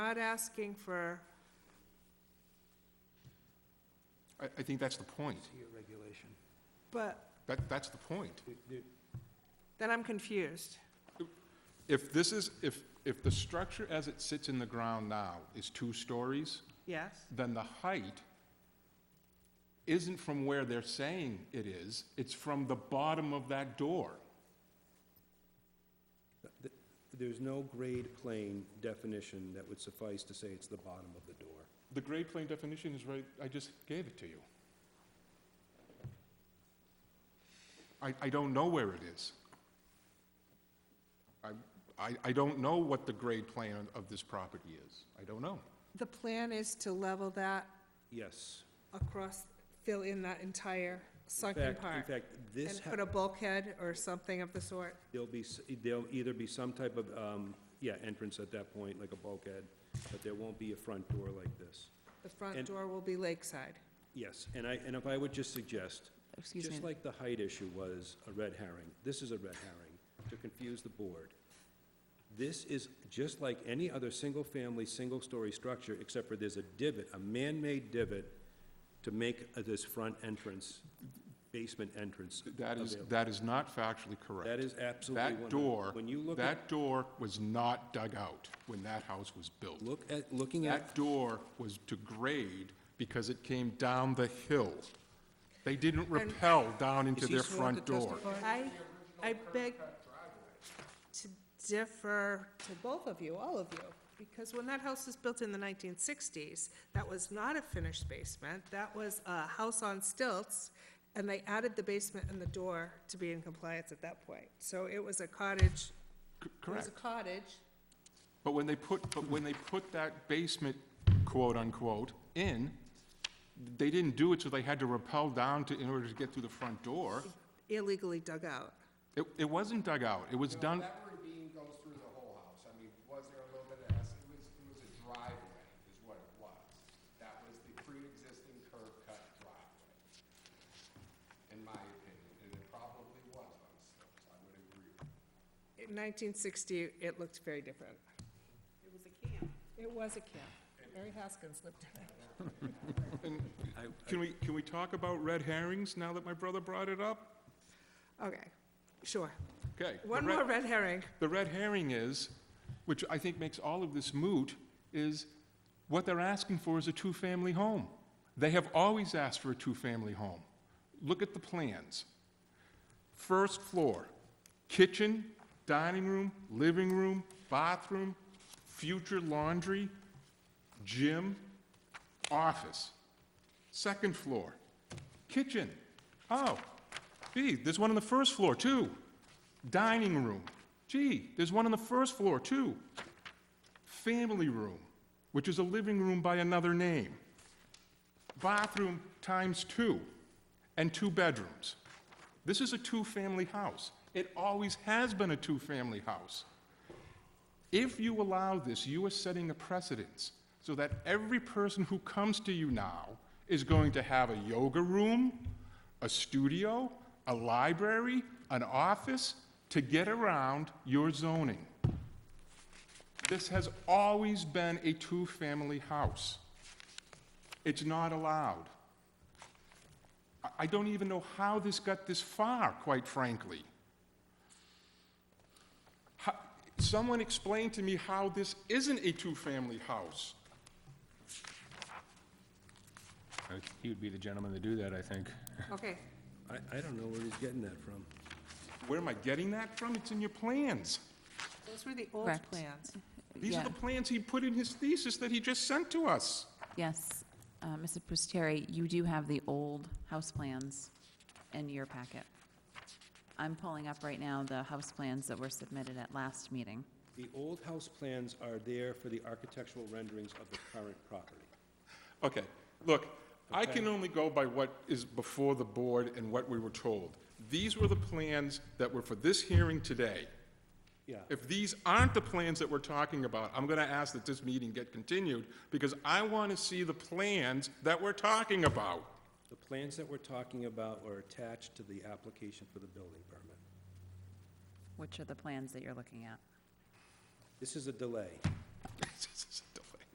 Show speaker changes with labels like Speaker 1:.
Speaker 1: not asking for,
Speaker 2: I, I think that's the point.
Speaker 3: Your regulation.
Speaker 1: but,
Speaker 2: That, that's the point.
Speaker 1: then I'm confused.
Speaker 2: If this is, if, if the structure as it sits in the ground now is two stories,
Speaker 1: Yes?
Speaker 2: then the height isn't from where they're saying it is, it's from the bottom of that door.
Speaker 3: Th- There's no grade plane definition that would suffice to say it's the bottom of the door.
Speaker 2: The grade plane definition is right, I just gave it to you. I, I don't know where it is. I, I, I don't know what the grade plane of- of this property is. I don't know.
Speaker 1: The plan is to level that
Speaker 3: Yes.
Speaker 1: across, fill in that entire
Speaker 3: In
Speaker 1: sunken
Speaker 3: fact- In
Speaker 1: part,
Speaker 3: fact, this,
Speaker 1: and put
Speaker 3: ha-
Speaker 1: a bulkhead or something of the sort.
Speaker 3: there'll be, s- there'll either be some type of, um, yeah, entrance at that point, like a bulkhead, but there won't be a front door like this.
Speaker 1: The front
Speaker 3: And-
Speaker 1: door will be lakeside.
Speaker 3: Yes, and I, and if I would just suggest,
Speaker 4: Excuse
Speaker 3: just
Speaker 4: me.
Speaker 3: like the height issue was a red herring, this is a red herring, to confuse the board. This is just like any other single-family, single-story structure, except for there's a divot, a man-made divot, to make uh, this front entrance, basement entrance
Speaker 2: That is,
Speaker 3: available.
Speaker 2: that is not factually correct.
Speaker 3: That is absolutely one.
Speaker 2: That door,
Speaker 3: When you look at,
Speaker 2: that door was not dug out when that house was built.
Speaker 3: look at, looking at
Speaker 2: That door was to grade because it came down the hill. They didn't rappel down into
Speaker 3: Is he
Speaker 2: their
Speaker 3: sworn
Speaker 2: front
Speaker 3: to
Speaker 2: door.
Speaker 3: testify?
Speaker 1: I, I beg to differ to both of you, all of you, because when that house was built in the nineteen sixties, that was not a finished basement, that was a house on stilts, and they added the basement and the door to be in compliance at that point. So it was a cottage,
Speaker 2: C-
Speaker 1: it was
Speaker 2: Correct.
Speaker 1: a cottage,
Speaker 2: But when they put, but when they put that basement, quote-unquote, in, they didn't do it, so they had to rappel down to, in order to get through the front door.
Speaker 1: illegally dug out.
Speaker 2: It, it wasn't dug out, it was done,
Speaker 5: That ravine goes through the whole house. I mean, was there a little bit of, it was, it was a driveway is what it was. That was the pre-existing curb cut driveway, in my opinion, and it probably was on slopes, I would agree.
Speaker 1: In nineteen sixty, it looked very different. It was a camp. It was a camp. Mary Haskins lived in it.
Speaker 2: and can we, can we talk about red herrings now that my brother brought it up?
Speaker 1: Okay, sure.
Speaker 2: Okay. the
Speaker 1: One
Speaker 2: red-
Speaker 1: more red herring.
Speaker 2: The red herring is, which I think makes all of this moot, is what they're asking for is a two-family home. They have always asked for a two-family home. Look at the plans. First floor, kitchen, dining room, living room, bathroom, future laundry, gym, office. Second floor, kitchen. Oh, gee, there's one on the first floor, too. Dining room. Gee, there's one on the first floor, too. Family room, which is a living room by another name. Bathroom times two, and two bedrooms. This is a two family house. It always has been a two family house. If you allow this, you are setting a precedence so that every person who comes to you now is going to have a yoga room, a studio, a library, an office to get around your zoning. This has always been a two family house. It's not allowed. I- I don't even know how this got this far, quite frankly. How- Someone explain to me how this isn't a two-family house.
Speaker 6: Uh, He would be the gentleman to do that, I think.
Speaker 1: Okay,
Speaker 3: I, I don't know where he's getting that from.
Speaker 2: Where am I getting that from? It's in your plans.
Speaker 1: those were the old
Speaker 4: Correct.
Speaker 1: plans.
Speaker 2: These are
Speaker 4: Yeah.
Speaker 2: the plans he put in his thesis that he just sent to us.
Speaker 4: Yes, Uh, Mrs. Prusteri, you do have the old house plans in your packet. I'm pulling up right now the house plans that were submitted at last meeting.
Speaker 3: The old house plans are there for the architectural renderings of the current property.
Speaker 2: Okay, look, I can only go by what is before the board and what we were told. These were the plans that were for this hearing today.
Speaker 3: Yeah.
Speaker 2: If these aren't the plans that we're talking about, I'm gonna ask that this meeting get continued, because I wanna see the plans that we're talking about.
Speaker 3: The plans that we're talking about are attached to the application for the building permit.
Speaker 4: Which are the plans that you're looking at?
Speaker 3: This is a delay.